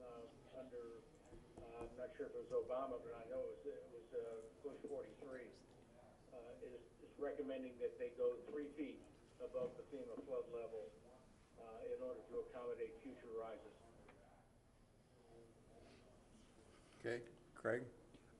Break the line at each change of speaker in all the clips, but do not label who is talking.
um, uh, I'm not sure if it was Obama, but I know it was, it was, uh, Bush forty-three, uh, is, is recommending that they go three feet above the FEMA flood level, uh, in order to accommodate future rises.
Okay, Craig?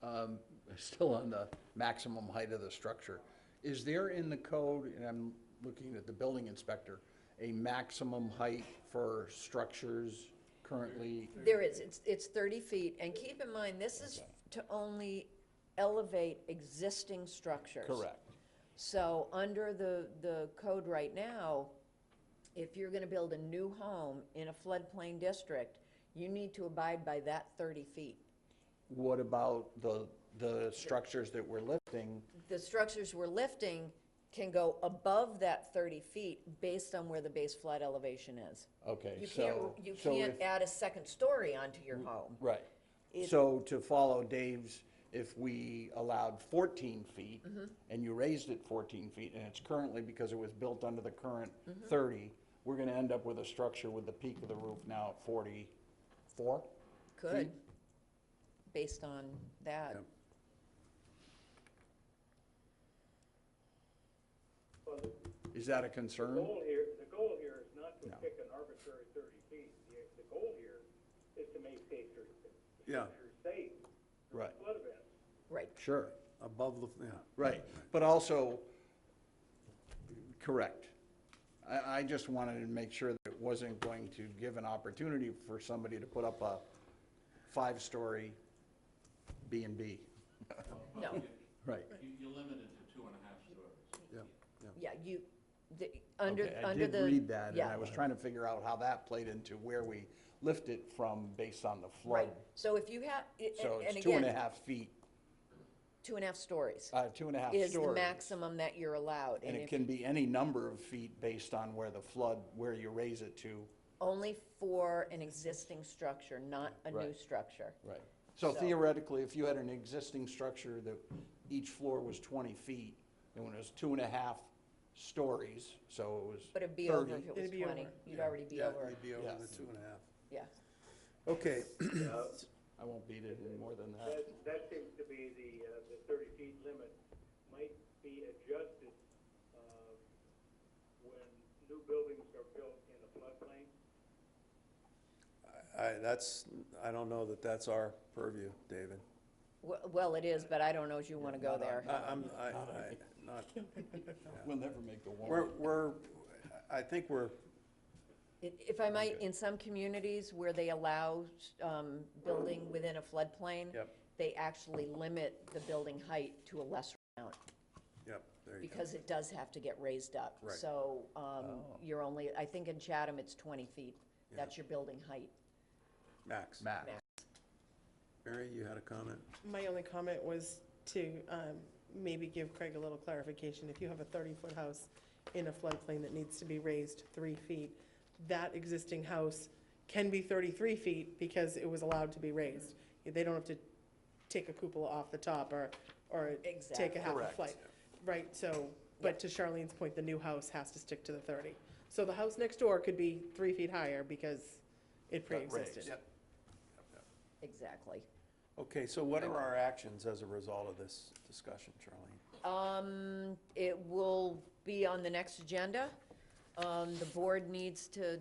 Um, Still on the maximum height of the structure. Is there in the code, and I'm looking at the building inspector, a maximum height for structures currently?
There is, it's, it's thirty feet, and keep in mind, this is to only elevate existing structures. So, under the, the code right now, if you're gonna build a new home in a floodplain district, you need to abide by that thirty feet.
What about the, the structures that we're lifting?
The structures we're lifting can go above that thirty feet based on where the base flood elevation is.
Okay,
You can't,
so.
you
so
can't
if- Mm.
add a second story onto your home.
Right. So to follow Dave's, if we allowed 14 feet and you raised it 14 feet, and it's currently because it was built under the current 30, we're going to end up with a structure with the peak of the roof now at 44?
Could, based on that.
Well, the
Is that a
the
concern?
goal here, the goal here is not to pick an arbitrary thirty feet. The, the goal here is to make safer,
Yeah,
structures safe
Right,
for flood events.
Right.
sure,
above the, yeah.
right. But also, correct. I, I just wanted to make sure that it wasn't going to give an opportunity for somebody to put up a five-story B and B.
No,
Right.
You, you're limited to two and a half stories.
Yeah, yeah.
yeah, you, the, under,
Okay,
under the.
I did read that, and
yeah,
I was trying to figure out how that played into where we lift it from based on the flood.
Right, so if you have, i-
So
and and
it's two and a
again,
half feet,
two and a half stories
uh, two and a half stories.
is the maximum that you're allowed.
And it
if-
can be any number of feet based on where the flood, where you raise it to.
Only for an existing structure, not a new
Right.
structure.
Right. So
So-
theoretically, if you had an existing structure that each floor was twenty feet, and when it was two and a half stories, so it was
But it'd be
thirty.
over if it was
It'd be
twenty,
over.
you'd already be
Yeah,
over,
You'd be over
Yeah.
the two and a half.
yeah.
Okay,
I won't beat it any more than that.
That, that seems to be the, uh, the thirty feet limit might be adjusted, uh, when new buildings are built in a floodplain.
I, that's, I don't know that that's our purview, David.
W- Well, it is, but I don't know if you wanna go there.
I, I'm, I, I, not,
We'll never make the warrant.
we're, we're, I think we're,
I- If I might, in some communities where they allow um, building within a floodplain,
Yep.
they actually limit the building height to a lesser amount,
yep, there you go.
because it does have to get raised up.
Right. Oh.
So um, you're only, I think in Chatham, it's 20 feet. That's your building height.
Max.
Max.
Mary, you had a comment?
My only comment was to um, maybe give Craig a little clarification. If you have a 30-foot house in a floodplain that needs to be raised three feet, that existing house can be 33 feet because it was allowed to be raised. They don't have to take a cupola off the top or, or take
Exactly.
a half a
Correct.
flight. Right, so, but to Charlene's point, the new house has to stick to the 30. So the house next door could be three feet higher because it
raised.
pre-existed.
Yep.
Exactly.
Okay, so what are our actions as a result of this discussion, Charlene?
Um, It will be on the next agenda. Um, The board needs to,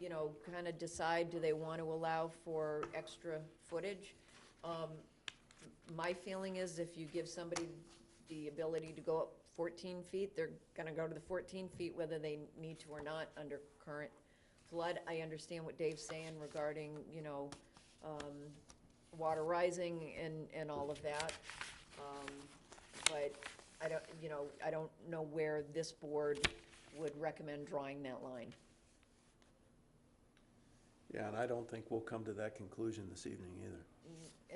you know, kind of decide, do they want to allow for extra footage? Um, My feeling is if you give somebody the ability to go up 14 feet, they're going to go to the 14 feet whether they need to or not under current flood. I understand what Dave's saying regarding, you know, um, water rising and, and all of that. Um, But I don't, you know, I don't know where this board would recommend drawing that line.
Yeah, and I don't think we'll come to that conclusion this evening either.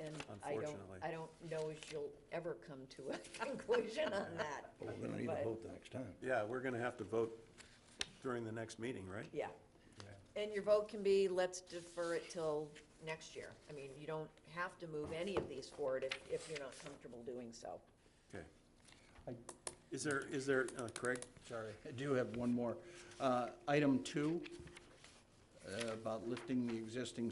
And I don't,
Unfortunately.
I don't know if you'll ever come to a conclusion on that.
We're gonna need
But-
to vote the next time.
Yeah, we're gonna have to vote during the next meeting, right?
Yeah. And your vote can be, let's defer it till next year. I mean, you don't have to move any of these forward if, if you're not comfortable doing so.
Okay. Is there, is there, uh, Craig?
Sorry, I do have one more. Uh, Item two, uh, about lifting the existing